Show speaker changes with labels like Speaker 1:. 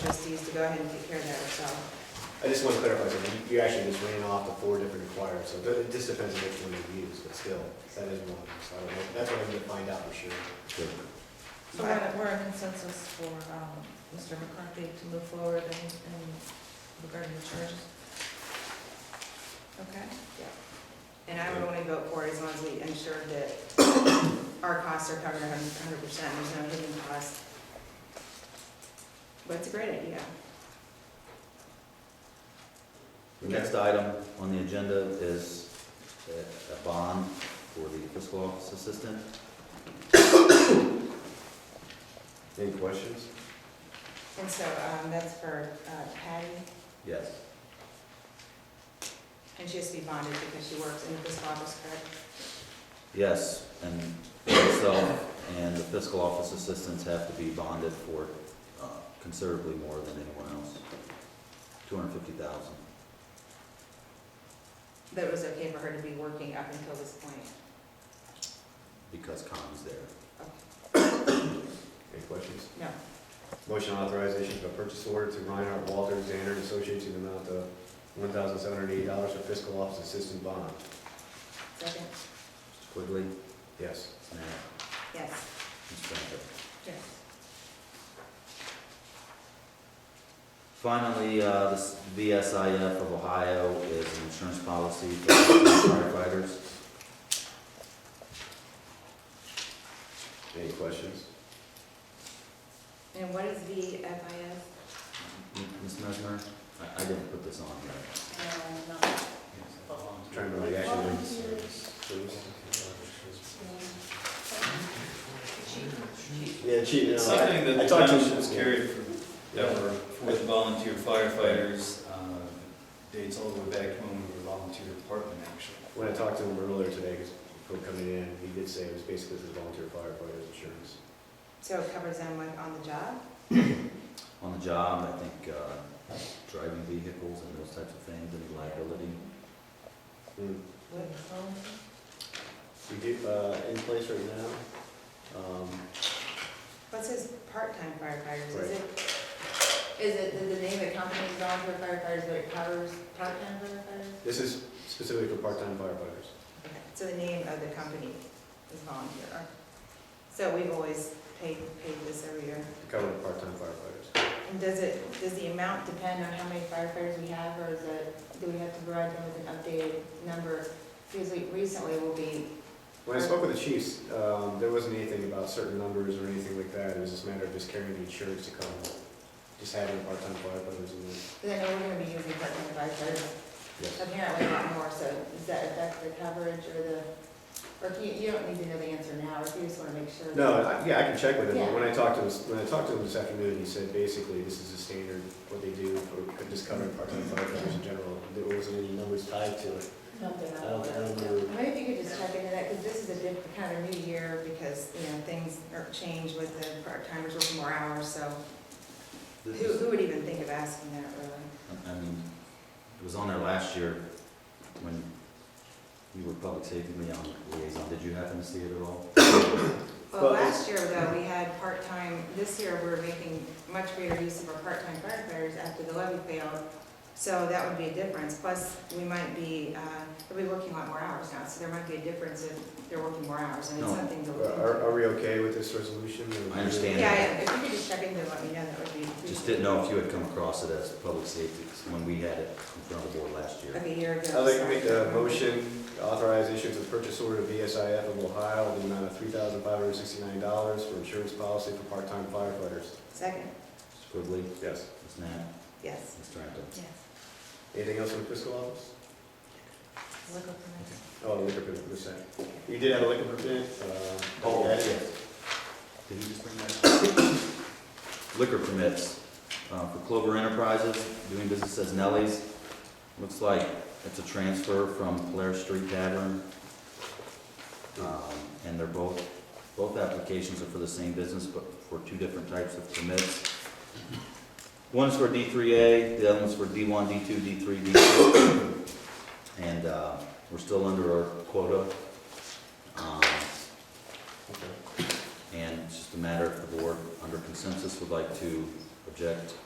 Speaker 1: trustees to go ahead and take care of that ourselves.
Speaker 2: I just want to clarify something. You actually just ran off the four different acquirers, so it just depends on which one you use, but still, that is one. So I don't know. That's what I'm going to find out for sure.
Speaker 3: So we're, in- we're in consensus for, um, Mr. McCarthy to move forward and, and regarding the charges? Okay,
Speaker 1: And I would only vote for it as long as we ensure that our costs are covered a hundred percent, there's no hidden costs. But it's a great idea.
Speaker 4: The next item on the agenda is a a bond for the fiscal office assistant.
Speaker 2: Any questions?
Speaker 1: And so, um, that's for uh, Patty,
Speaker 4: Yes.
Speaker 1: and she has to be bonded because she works in the fiscal office, correct?
Speaker 4: Yes, and myself and the fiscal office assistants have to be bonded for uh, considerably more than anyone else. Two hundred fifty thousand.
Speaker 1: That it was okay for her to be working up until this point.
Speaker 4: because Connie's there.
Speaker 2: Any questions?
Speaker 1: No.
Speaker 2: Motion authorization for purchase order to Reinhardt Walter Zander and Associates in the amount of one thousand seven hundred eighty dollars for fiscal office assistant bond.
Speaker 1: Second?
Speaker 4: Mr. Quigley,
Speaker 2: Yes.
Speaker 4: Matt,
Speaker 1: Yes.
Speaker 4: Ms. Brinker.
Speaker 1: Yes.
Speaker 4: Finally, uh, this VSIF of Ohio is an insurance policy for firefighters.
Speaker 2: Any questions?
Speaker 1: And what is VFIS?
Speaker 4: Ms. Mesmer, I, I didn't put this on here.
Speaker 2: Trying to react to Yeah, cheating.
Speaker 5: It's something that
Speaker 2: I
Speaker 5: the
Speaker 2: talked to-
Speaker 5: township's carried forever for the volunteer firefighters, uh, dates all the way back to when we were volunteer department, actually.
Speaker 2: When I talked to him earlier today, 'cause from coming in, he did say it was basically his volunteer firefighters insurance.
Speaker 1: So it covers them like on the job?
Speaker 4: On the job, I think, uh, driving vehicles and those types of things, and liability.
Speaker 2: Hmm.
Speaker 1: What?
Speaker 2: We do, uh, in place right now, um,
Speaker 1: What's his part-time firefighters? Is it, is it the- the name of the company is volunteer firefighters, but it covers part-time firefighters?
Speaker 2: this is specifically for part-time firefighters.
Speaker 1: Okay, So the name of the company is volunteer. So we've always paid, paid this every year.
Speaker 2: to cover the part-time firefighters.
Speaker 1: And does it, does the amount depend on how many firefighters we have, or is it, do we have to provide them with an updated number? Because like recently will be,
Speaker 2: When I spoke with the chiefs, um, there wasn't anything about certain numbers or anything like that. It was just a matter of just carrying the insurance to cover, just having part-time firefighters in there.
Speaker 1: because I know we're gonna be using part-time firefighters
Speaker 2: Yes.
Speaker 1: apparently a lot more, so does that affect the coverage or the, or if you, you don't need to know the answer now, if you just wanna make sure.
Speaker 2: No, I- yeah, I can check with him, but
Speaker 1: Yeah.
Speaker 2: when I talked to him, when I talked to him this afternoon, he said basically this is a standard, what they do for just covering part-time firefighters in general. There wasn't any numbers tied to it.
Speaker 1: Something
Speaker 2: I
Speaker 1: like
Speaker 2: don't, I
Speaker 1: that.
Speaker 2: don't remember.
Speaker 1: Maybe if you could just check into that, because this is a different kind of new year, because, you know, things are changed with the part-timers working more hours, so who,
Speaker 4: This is-
Speaker 1: who would even think of asking that, really?
Speaker 4: I- I mean, it was on there last year when you were public safety liaison- liaison. Did you happen to see it at all?
Speaker 1: Well,
Speaker 2: But-
Speaker 1: last year though, we had part-time, this year we're making much greater use of our part-time firefighters after the levy failed. So that would be a difference, plus we might be, uh, they'll be working a lot more hours now, so there might be a difference if they're working more hours, and it's
Speaker 4: No.
Speaker 1: something to look into.
Speaker 2: Are, are we okay with this resolution? or-
Speaker 4: I understand.
Speaker 1: Yeah, yeah, if you could just check into it, let me know, that would be.
Speaker 4: Just didn't know if you had come across it as public safety when we had it in front of the board last year.
Speaker 1: Like a year ago.
Speaker 2: I'd like to
Speaker 1: sorry.
Speaker 2: make
Speaker 4: uh,
Speaker 2: a motion to authorize issuance of purchase order to VSIF of Ohio in the amount of three thousand five hundred sixty-nine dollars for insurance policy for part-time firefighters.
Speaker 1: Second,
Speaker 4: Mr. Quigley,
Speaker 2: Yes.
Speaker 4: Ms. Knapp,
Speaker 1: yes.
Speaker 4: Ms. Tarantino.
Speaker 1: Yes.
Speaker 2: Anything else from the fiscal office?
Speaker 1: Look up the
Speaker 2: Oh, liquor permit, you did have a liquor permit, uh.
Speaker 4: Oh, Did you just bring that? up? Liquor permits uh, for Clover Enterprises, doing business as Nelly's. Looks like it's a transfer from Polaris Street Tavern. Um, And they're both, both applications are for the same business, but for two different types of permits. One's for D3A, the other one's for D1, D2, D3, D4. And uh, we're still under our quota. Um,
Speaker 2: Okay.
Speaker 4: and it's just a matter if the board, under consensus, would like to object